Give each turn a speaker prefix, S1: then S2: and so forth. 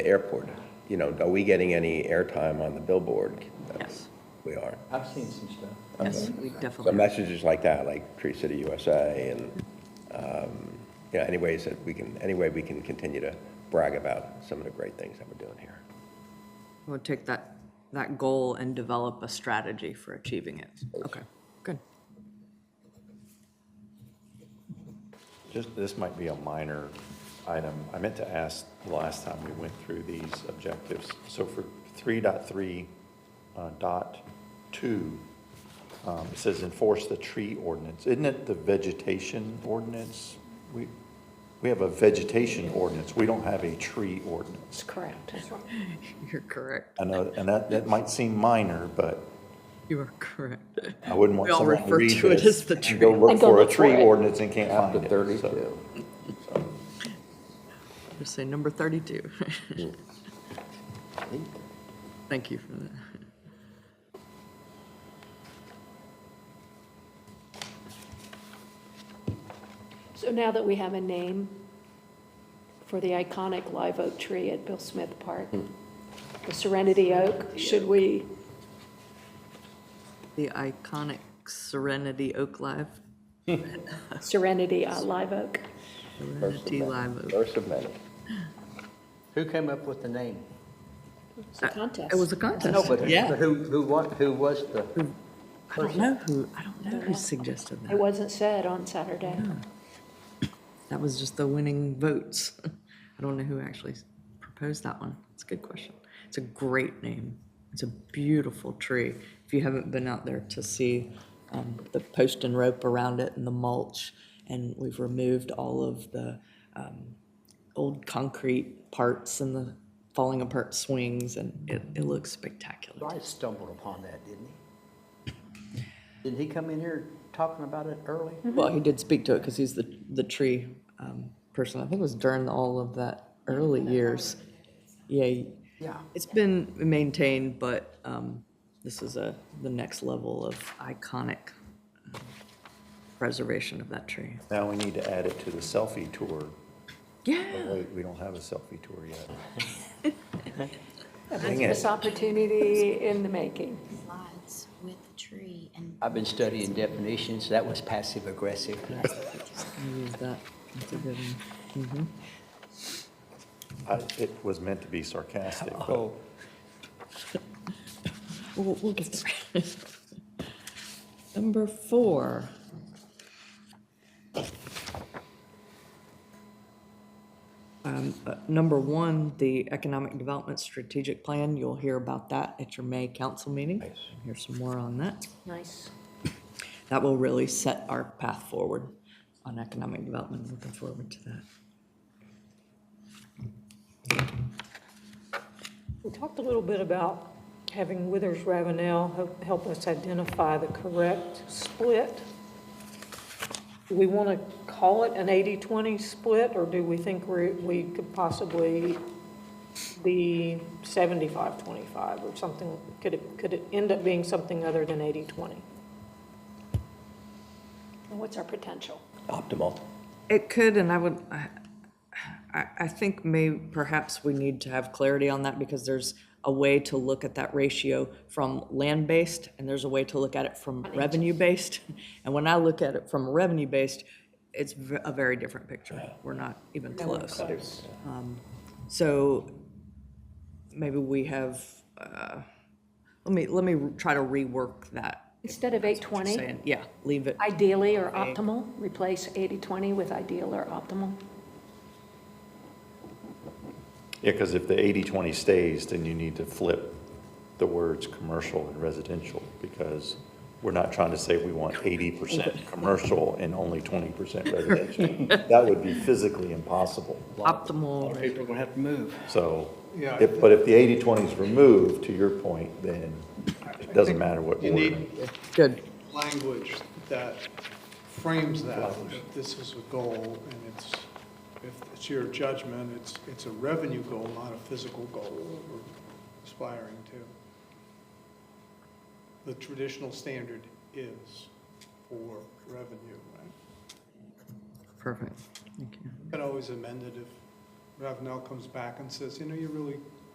S1: the airport. You know, are we getting any airtime on the billboard?
S2: Yes.
S1: We are.
S3: I've seen some stuff.
S2: Yes, we
S1: So
S2: definitely,
S1: messages like that, like Tree City USA and, um, you know, any ways that we can, any way we can continue to brag about some of the great things that we're doing here.
S2: we'll take that, that goal and develop a strategy for achieving it. Okay, good.
S4: Just, this might be a minor item. I meant to ask the last time we went through these objectives. So for 3.3 dot uh, dot two, um, it says enforce the tree ordinance. Isn't it the vegetation ordinance? We, we have a vegetation ordinance. We don't have a tree ordinance.
S5: Correct.
S2: You're correct.
S4: I know, and that, that might seem minor, but
S2: You are correct.
S4: I wouldn't
S2: We
S4: want
S2: all
S4: someone to
S2: refer
S4: read
S2: to it as
S4: this
S2: the
S4: and go look
S5: And go
S4: for a
S5: look for
S4: tree
S5: it.
S4: ordinance and can't
S3: After
S4: find it. So-
S3: 32.
S2: Just say number 32. Thank you for that.
S5: So now that we have a name for the iconic live oak tree at Bill Smith Park,
S2: Hmm.
S5: the Serenity Oak, should we,
S2: The iconic Serenity Oak Live,
S5: Serenity uh, Live Oak?
S1: First of
S2: Serenity
S1: many.
S2: Live Oak.
S1: First of many.
S3: Who came up with the name?
S5: It's a contest.
S2: It was a contest.
S3: No, but
S2: Yeah.
S3: who, who, wa- who was the,
S2: I don't know who, I don't know who suggested
S5: It
S2: that.
S5: wasn't said on Saturday.
S2: That was just the winning votes. I don't know who actually proposed that one. It's a good question. It's a great name. It's a beautiful tree. If you haven't been out there to see um, the post and rope around it and the mulch, and we've removed all of the um, old concrete parts and the falling apart swings, and it, it looks spectacular.
S3: I stumbled upon that, didn't he? Didn't he come in here talking about it early?
S2: Well, he did speak to it because he's the, the tree um, person. I think it was during all of that early years. Yeah,
S3: Yeah.
S2: it's been maintained, but um, this is a, the next level of iconic um, preservation of that tree.
S4: Now we need to add it to the selfie tour. Oh,
S2: Yeah.
S4: wait, we don't have a selfie tour yet. Dang
S5: This
S4: it.
S5: opportunity in the making.
S6: Slides with the tree and
S3: I've been studying definitions, that was passive aggressive.
S2: Use that. That's a good one.
S4: I- It was meant to be sarcastic, but
S3: Oh,
S2: We'll, we'll get there. Number four. Um, uh, Number one, the Economic Development Strategic Plan, you'll hear about that at your May council meeting. Here's some more on that.
S5: Nice.
S2: That will really set our path forward on economic development, looking forward to that.
S7: We talked a little bit about having Withers Ravenel help- help us identify the correct split. Do we want to call it an 80-20 split, or do we think we we could possibly be 75-25 or something? Could it, could it end up being something other than 80-20?
S5: And what's our potential?
S1: Optimal.
S2: It could, and I would, I, I- I think may, perhaps we need to have clarity on that because there's a way to look at that ratio from land-based and there's a way to look at it from revenue-based. And when I look at it from revenue-based, it's v- a very different picture. We're not even close. Um, So maybe we have, uh, let me, let me try to rework that.
S5: Instead of
S2: Just
S5: 820,
S2: saying, Yeah, leave it.
S5: ideally or optimal, replace 80-20 with ideal or optimal?
S4: yeah, because if the 80-20 stays, then you need to flip the words commercial and residential because we're not trying to say we want 80% commercial and only 20% residential. That would be physically impossible.
S2: Optimal.
S3: people are gonna have to move.
S4: So, if, but if the 80-20 is removed, to your point, then it doesn't matter what
S8: You
S4: order.
S8: need
S2: Good.
S8: language that frames that, that this is a goal, and it's, if it's your judgment, it's, it's a revenue goal, not a physical goal that we're aspiring to. The traditional standard is for revenue, right?
S2: Perfect. Thank you.
S8: You Can always amend it if Ravenel comes back and says, you know, you really